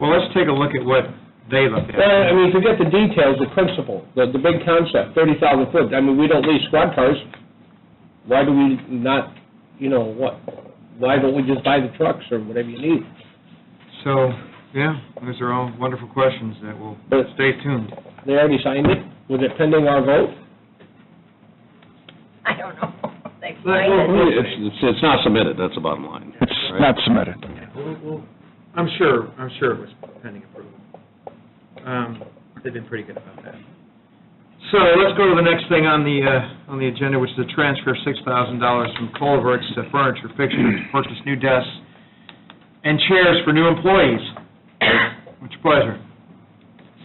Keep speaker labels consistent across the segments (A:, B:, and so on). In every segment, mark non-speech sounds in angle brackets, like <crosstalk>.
A: Well, let's take a look at what they look at.
B: Well, I mean, forget the details, the principle, the, the big concept, thirty thousand foot, I mean, we don't lease squad cars. Why do we not, you know, what, why don't we just buy the trucks or whatever you need?
A: So, yeah, those are all wonderful questions that will,
B: But-
A: stay tuned.
B: They already signed it, was it pending our vote?
C: I don't know. <laughs> They find it.
D: It's, it's- it's not submitted, that's the bottom line.
E: It's
D: right?
E: not submitted.
A: I'm sure, I'm sure it was pending approval. Um, They've been pretty good about that. So let's go to the next thing on the, uh, on the agenda, which is the transfer of $6,000 from Culverts to Furniture Fixtures, to purchase new desks and chairs for new employees. With your pleasure.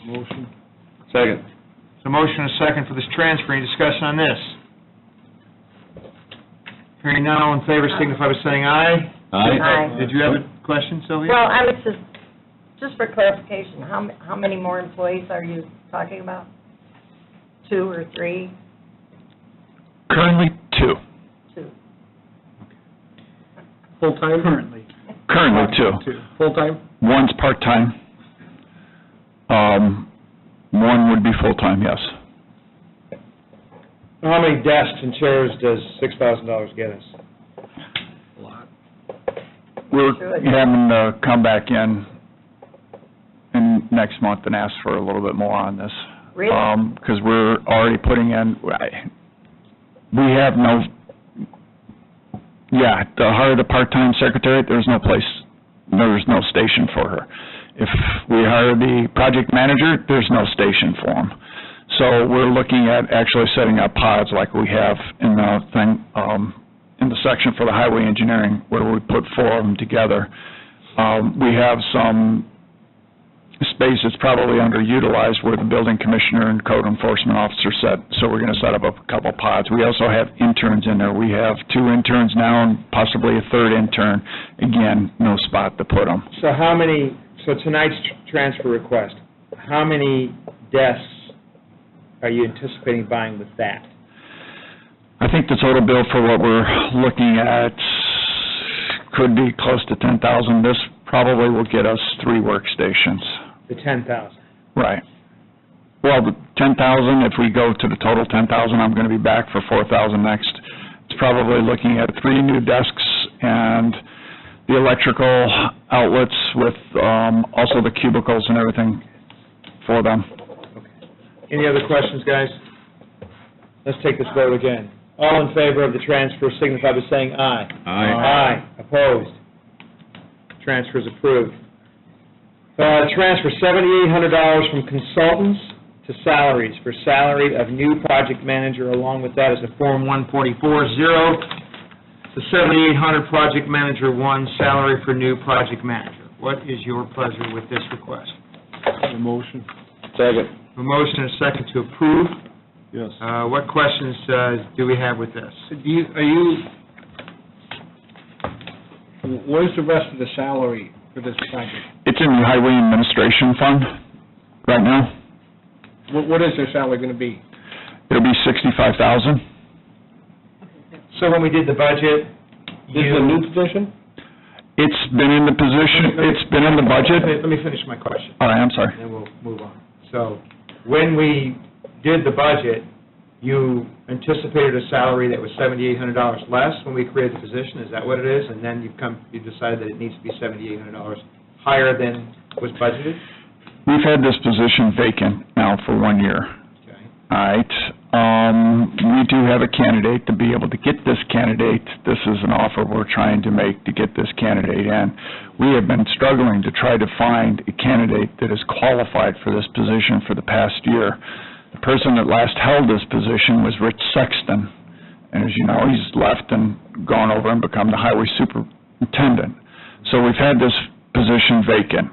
B: Motion.
D: Second.
A: So motion and a second for this transfer, any discussion on this? Hearing none, all in favor signify by saying aye.
C: Aye.
A: Did you have a question, Sylvia?
C: Well, I was just, just for clarification, how, m- how many more employees are you talking about? Two or three?
E: Currently, two.
C: Two.
B: Full-time? Currently.
E: Currently, two.
B: Full-time?
E: One's part-time. Um, one would be full-time, yes.
A: How many desks and chairs does six thousand dollars get us?
E: We're
C: Sure.
E: having to uh, come back in, in next month and ask for a little bit more on this.
C: Really?
E: Because we're already putting in, I- we have no, yeah, to hire the part-time secretary, there's no place, there's no station for her. If we hire the project manager, there's no station for him. So we're looking at actually setting up pods like we have in the thing, um, in the section for the highway engineering, where we put four of them together. Um, we have some space that's probably underutilized where the building commissioner and code enforcement officer set, so we're gonna set up a couple pods. We also have interns in there. We have two interns now and possibly a third intern. Again, no spot to put them.
A: So how many, so tonight's tr- transfer request, how many desks are you anticipating buying with that?
E: I think the total bill for what we're looking at could be close to ten thousand. This probably will get us three workstations.
A: The ten thousand?
E: Right. Well, the ten thousand, if we go to the total ten thousand, I'm gonna be back for four thousand next. It's probably looking at three new desks and the electrical outlets with, um, also the cubicles and everything for them.
A: Any other questions, guys? Let's take this vote again. All in favor of the transfer signify by saying aye. Aye. Opposed? Transfer is approved. Uh, Transfer $7,800 from consultants to salaries for salary of new project manager. Along with that is a Form 1440 to 7,800 Project Manager 1, salary for new project manager. What is your pleasure with this request?
B: Motion.
D: Second.
A: A motion and a second to approve.
B: Yes.
A: Uh, What questions uh, do we have with this? Do you, are you,
B: Where's the rest of the salary for this project?
E: It's in the highway administration fund right now.
B: What, what is their salary gonna be?
E: It'll be sixty-five thousand.
A: so when we did the budget,
B: This is a
A: you...
B: new position?
E: It's been in the position, it's been in the
A: Let me-
E: budget.
A: Let me finish my question,
E: All right, I'm sorry.
A: and then we'll move on. So, when we did the budget, you anticipated a salary that was $7,800 less when we created the position, is that what it is? And then you've come, you decided that it needs to be $7,800 higher than was budgeted?
E: We've had this position vacant now for one year.
A: Okay.
E: All right, um, we do have a candidate to be able to get this candidate, this is an offer we're trying to make to get this candidate in. We have been struggling to try to find a candidate that is qualified for this position for the past year. The person that last held this position was Rich Sexton, and as you know, he's left and gone over and become the highway superintendent. So we've had this position vacant.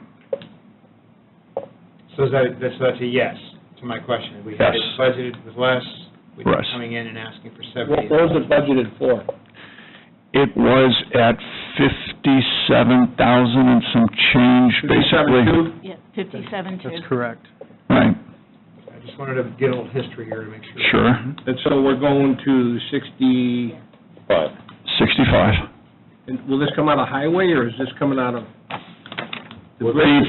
A: So is that, that's, that's a yes to my question. We had it
E: Yes.
A: budgeted with less, we were
E: Yes.
A: coming in and asking for
B: What,
A: seventy.
B: what was it budgeted for?
E: It was at fifty-seven thousand and some change, basically.
F: Yeah, fifty-seven two.
A: correct.
E: Right,
A: I just wanted to get a little history here to make sure.
E: sure.
B: And so we're going to sixty,
D: Five.
E: Sixty-five.
B: and will this come out of highway, or is this coming out of?
E: The